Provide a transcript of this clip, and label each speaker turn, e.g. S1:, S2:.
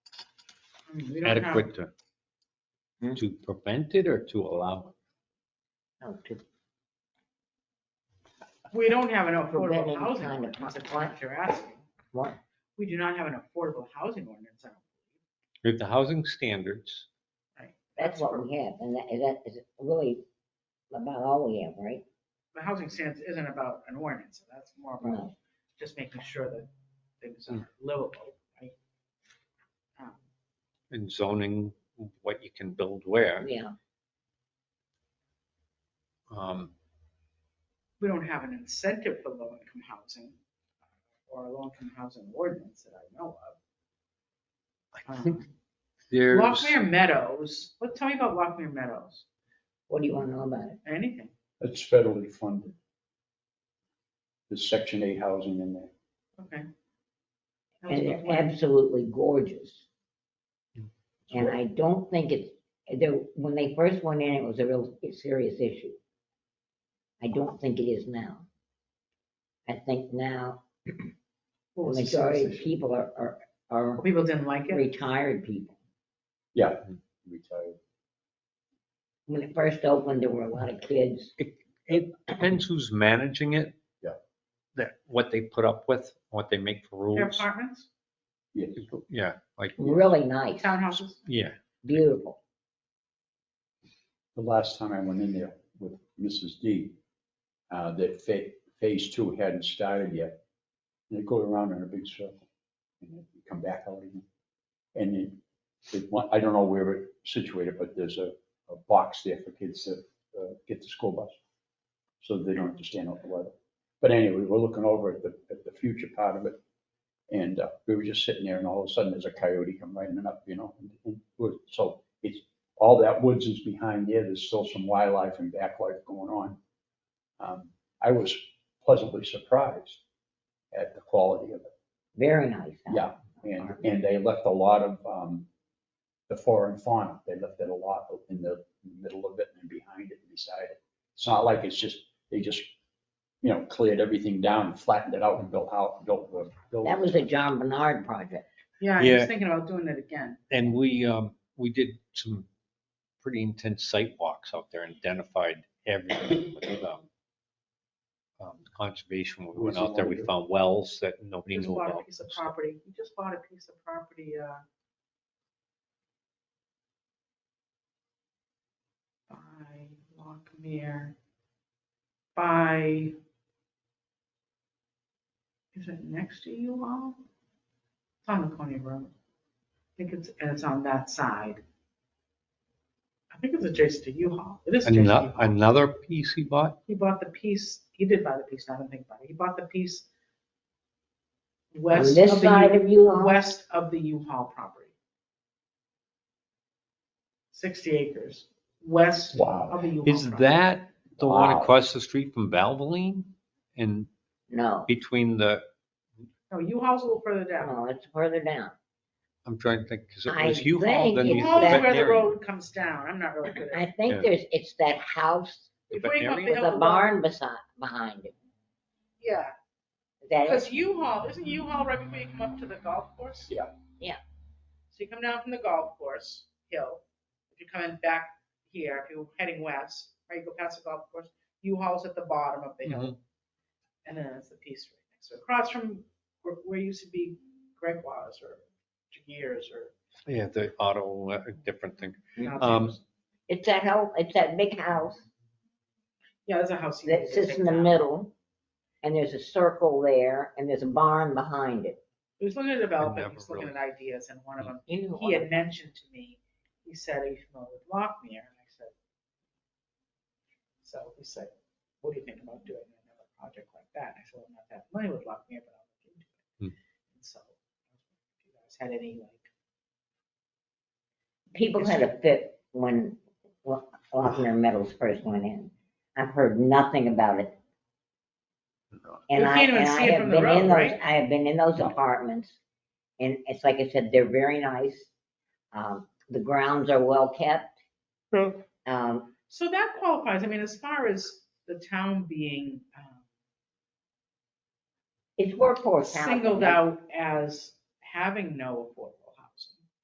S1: Hmm, We don't know.
S2: adequate to,
S3: Hmm?
S2: to prevent it or to allow?
S4: No, Oh, to
S1: We don't have an
S4: Prevent
S1: affordable
S4: any
S1: housing
S4: kind of
S1: ordinance, if that's
S4: consequence.
S1: what you're asking.
S4: What?
S1: We do not have an affordable housing ordinance. I don't-
S2: If the housing standards,
S4: That's what we have, and that, that is really about all we have, right?
S1: The housing stance isn't about an ordinance, that's more about
S4: No.
S1: just making sure that things
S2: Hmm.
S1: are livable, right? Um,
S2: and zoning, what you can build where,
S4: Yeah,
S2: um,
S1: We don't have an incentive for low-income housing uh, or a low-income housing ordinance that I know
S2: I
S1: of.
S2: think
S1: Um,
S2: there's,
S1: Lockmere Meadows, what, tell me about Lockmere Meadows,
S4: what do you wanna know about it?
S1: anything.
S3: It's federally funded. There's section eight housing in there.
S1: Okay. That was
S4: And
S1: my
S4: they're
S1: point.
S4: absolutely gorgeous. And I don't think it's, there, when they first went in, it was a real serious issue. I don't think it is now. I think now,
S1: What
S4: the
S1: was the
S4: majority of
S1: source?
S4: people are, are, are
S1: People didn't like it?
S4: retired people.
S3: Yeah, retired.
S4: When it first opened, there were a lot of kids.
S2: it depends who's managing it.
S3: Yeah.
S2: That, what they put up with, what they make for
S1: Their
S2: rules.
S1: apartments,
S3: Yes.
S2: Yeah, like,
S4: Really nice,
S1: townhouses?
S2: yeah,
S4: beautiful.
S3: The last time I went in there with Mrs. D, uh, that fa- phase two hadn't started yet. And they go around in a big circle and then you come back out again. And it, it, wa- I don't know where it's situated, but there's a, a box there for kids that, uh, get the school bus. So they don't have to stand out the weather. But anyway, we're looking over at the, at the future part of it. And, uh, we were just sitting there and all of a sudden there's a coyote come running up, you know, and, and, we're- so it's, all that woods is behind there, there's still some wildlife and back life going on. Um, I was pleasantly surprised at the quality of it.
S4: Very nice. huh?
S3: Yeah, and, and they left a lot of, um, the foreign fauna, they left it a lot in the middle of it and behind it and beside it. It's not like it's just, they just, you know, cleared everything down, and flattened it out and built out, built. uh, built-
S4: That was a John Bernard project.
S1: Yeah, I was
S2: Yeah.
S1: thinking about doing it again.
S2: And we, um, we did some pretty intense site walks out there and identified everything with, um, um, conservation. We went out there, we found wells that nobody
S1: Just
S2: knew
S1: bought a
S2: about.
S1: piece of property, we just bought a piece of property, uh, by Lockmere, by, is it next to you all? It's on the Coney Road. I think it's, and it's on that side. I think it's adjacent to U-Haul. It is adjacent to
S2: Ano-
S1: U-Haul.
S2: Another piece he bought,
S1: He bought the piece, he did buy the piece, not think about it. He bought the piece west
S4: this
S1: of the,
S4: side of
S1: U-
S4: U-Haul?
S1: west of the U-Haul property. 60 acres, west
S3: Wow,
S1: of the U-Haul.
S2: is
S1: property.
S2: that the one
S3: Wow.
S2: across the street from Valvoline? And
S4: No,
S2: between the,
S1: No, U-Haul's a little further down.
S4: no, it's further down.
S2: I'm trying to think, because it
S4: I
S2: was U-Haul,
S4: think
S2: then
S4: it's
S2: the
S1: U-Haul's where the
S2: veterinarian.
S1: road comes down. I'm not really good at it.
S4: I think
S2: Yeah.
S4: there's, it's that house
S2: The
S1: Before you go up
S2: veterinarian?
S4: with a
S1: um,
S4: barn beside, behind it.
S1: Yeah,
S4: That is,
S1: because U-Haul, isn't U-Haul right before you come up to the golf course?
S3: Yeah.
S4: Yeah.
S1: So you come down from the golf course hill, if you're coming back here, if you're heading west, right, you go past the golf course, U-Haul's at the bottom of the hill.
S2: Mm-hmm.
S1: And then it's the piece right next to it, across from where, where used to be Gregoire's or Jagiers or.
S2: Yeah, the auto, uh, different thing.
S1: now it's-
S2: Um,
S4: it's that house, it's that big house
S1: Yeah, there's a house. you
S4: that
S1: need to
S4: sits
S1: take
S4: in the
S1: down.
S4: middle, and there's a circle there, and there's a barn behind it.
S1: He was looking at development,
S2: never
S1: he was looking at
S2: really-
S1: ideas, and one of them
S4: You know
S1: he
S4: what?
S1: had mentioned to me, he said, are you familiar with Lockmere? And I said, so he said, what do you think about doing another project like that? And I said, well, I'm not that familiar with Lockmere, but I'll look into it. And so, if you guys had any like,
S4: People had a fit when Lo- Lochner Meadows first went in. I've heard nothing about it. And
S1: You
S4: I,
S1: can't even
S4: and
S1: see
S4: I
S1: it
S4: have
S1: from the
S4: been in
S1: road,
S4: those,
S1: right?
S4: I have been in those apartments, and it's like I said, they're very nice. Um, the grounds are well kept. Um,
S1: so that qualifies, I mean, as far as the town being um,
S4: It's workforce housing.
S1: singled out as having no affordable